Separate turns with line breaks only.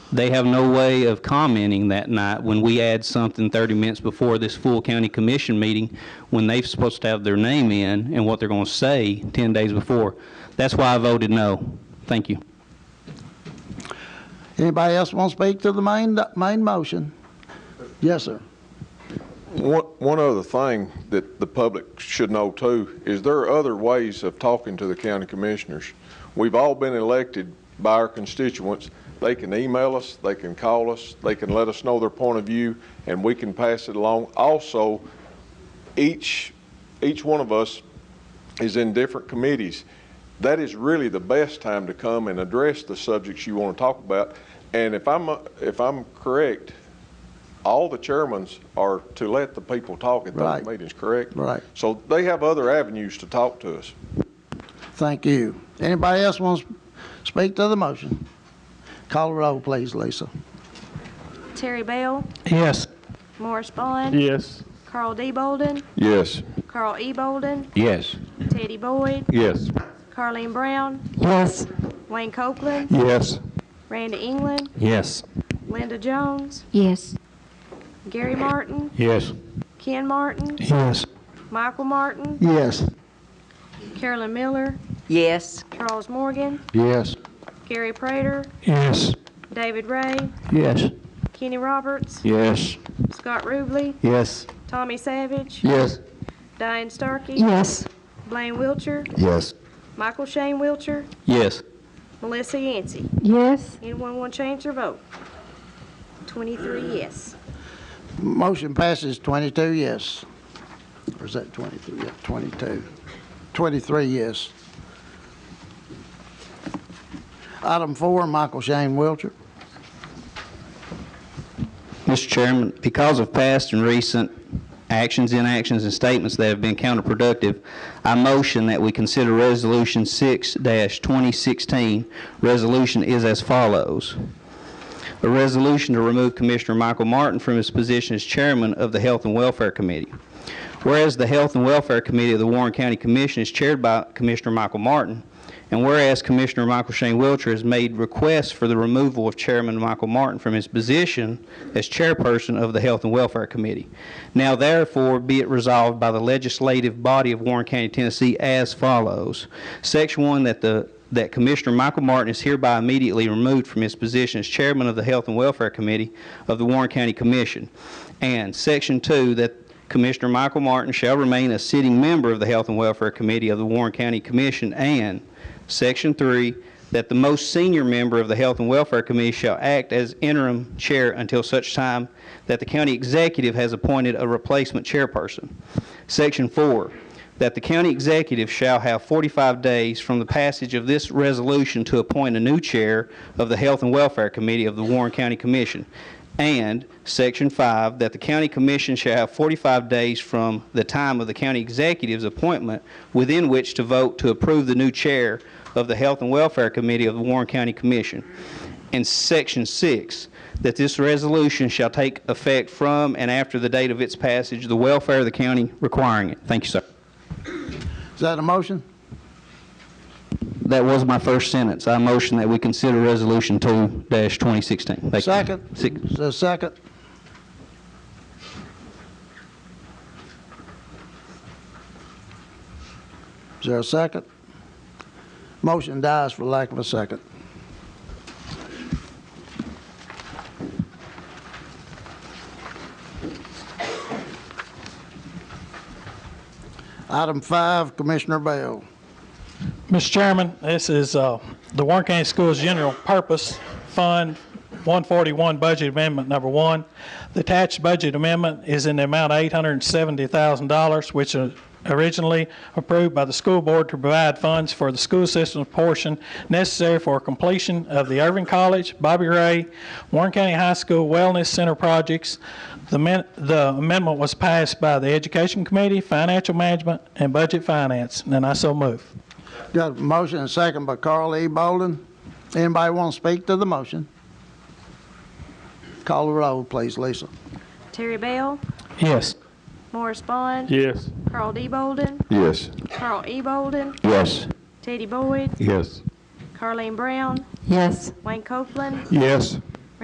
They have no way of commenting that night when we add something 30 minutes before this full county commission meeting, when they're supposed to have their name in and what they're going to say 10 days before. That's why I voted no. Thank you.
Anybody else want to speak to the main, main motion? Yes, sir.
One, one other thing that the public should know too, is there are other ways of talking to the county commissioners. We've all been elected by our constituents. They can email us, they can call us, they can let us know their point of view, and we can pass it along. Also, each, each one of us is in different committees. That is really the best time to come and address the subjects you want to talk about. And if I'm, if I'm correct, all the chairmans are to let the people talk at
Right.
those meetings, correct?
Right.
So they have other avenues to talk to us.
Thank you. Anybody else want to speak to the motion? Call the roll, please, Lisa.
Terry Bell,
Yes.
Morris Bond,
Yes.
Carl D. Bolden,
Yes.
Carl E. Bolden,
Yes.
Teddy Boyd,
Yes.
Carleen Brown,
Yes.
Wayne Copeland,
Yes.
Randy England,
Yes.
Linda Jones,
Yes.
Gary Martin,
Yes.
Ken Martin,
Yes.
Michael Martin,
Yes.
Carolyn Miller,
Yes.
Charles Morgan,
Yes.
Gary Prater,
Yes.
David Ray,
Yes.
Kenny Roberts,
Yes.
Scott Ruble,
Yes.
Tommy Savage,
Yes.
Diane Starkey,
Yes.
Blaine Wiltshire,
Yes.
Michael Shane Wiltshire,
Yes.
Melissa Yancey.
Yes.
Anyone want to change their vote? 23 yes.
Motion passes 22 yes. Or is that 23? Yeah, 22. 23 yes. Item four, Michael Shane Wiltshire.
Mr. Chairman, because of past and recent actions, inactions, and statements that have been counterproductive, I motion that we consider Resolution 6-2016. Resolution is as follows. A resolution to remove Commissioner Michael Martin from his position as chairman of the Health and Welfare Committee. Whereas the Health and Welfare Committee of the Warren County Commission is chaired by Commissioner Michael Martin, and whereas Commissioner Michael Shane Wiltshire has made requests for the removal of Chairman Michael Martin from his position as chairperson of the Health and Welfare Committee. Now therefore be it resolved by the legislative body of Warren County, Tennessee as follows. Section 1, that the that Commissioner Michael Martin is hereby immediately removed from his position as Chairman of the Health and Welfare Committee of the Warren County Commission. And Section 2, that Commissioner Michael Martin shall remain a sitting member of the Health and Welfare Committee of the Warren County Commission. And Section 3, that the most senior member of the Health and Welfare Committee shall act as interim chair until such time that the county executive has appointed a replacement chairperson. Section 4, that the county executive shall have 45 days from the passage of this resolution to appoint a new chair of the Health and Welfare Committee of the Warren County Commission. And Section 5, that the county commission shall have 45 days from the time of the county executive's appointment within which to vote to approve the new chair of the Health and Welfare Committee of the Warren County Commission. And Section 6, that this resolution shall take effect from and after the date of its passage, the welfare of the county requiring it. Thank you, sir.
Is that a motion?
That was my first sentence. I motion that we consider Resolution 2-2016. Thank you.
Second?
Six.
Is there a second? Is there a second? Motion dies for lack of a second. Item five, Commissioner Bell.
Mr. Chairman, this is uh, the Warren County Schools General Purpose Fund 141 Budget Amendment Number One. The attached budget amendment is in the amount of $870,000, which was originally approved by the school board to provide funds for the school system portion necessary for completion of the Irving College, Bobby Ray, Warren County High School Wellness Center projects. The men- the amendment was passed by the Education Committee, Financial Management, and Budget Finance, and I so move.
Got a motion and second by Carl E. Bolden. Anybody want to speak to the motion? Call the roll, please, Lisa.
Terry Bell,
Yes.
Morris Bond,
Yes.
Carl D. Bolden,
Yes.
Carl E. Bolden,
Yes.
Teddy Boyd,
Yes.
Carleen Brown,
Yes.
Wayne Copeland,
Yes.